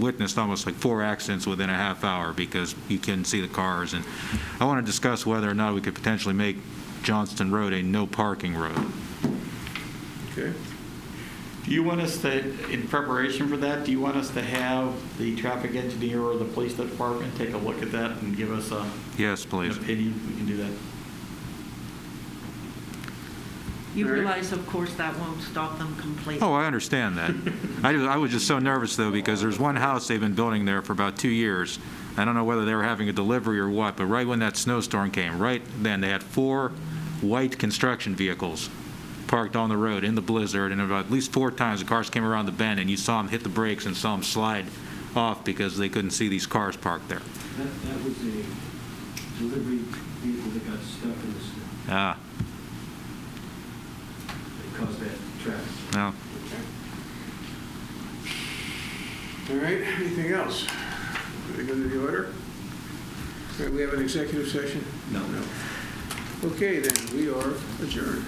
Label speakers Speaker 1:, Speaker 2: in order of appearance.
Speaker 1: witnessed almost like four accidents within a half hour because you couldn't see the cars. And I want to discuss whether or not we could potentially make Johnston Road a no parking road.
Speaker 2: Okay. Do you want us to, in preparation for that, do you want us to have the traffic engineer or the police department take a look at that and give us a-
Speaker 1: Yes,
Speaker 2: an
Speaker 1: please.
Speaker 2: opinion? We can do that.
Speaker 3: You
Speaker 2: Mary?
Speaker 3: realize, of course, that won't stop them completely.
Speaker 1: Oh, I understand that. I ju- I was just so nervous, though, because there's one house they've been building there for about two years. I don't know whether they were having a delivery or what, but right when that snowstorm came, right then, they had four white construction vehicles parked on the road in the blizzard, and about at least four times, the cars came around the bend, and you saw them hit the brakes and saw them slide off because they couldn't see these cars parked there.
Speaker 4: That, that was a delivery vehicle that got stuck in the snow.
Speaker 1: Ah,
Speaker 4: It caused that traffic.
Speaker 1: no.
Speaker 5: All right, anything else? Going to the order? All right, we have an executive session?
Speaker 4: No.
Speaker 5: Okay, then, we are adjourned.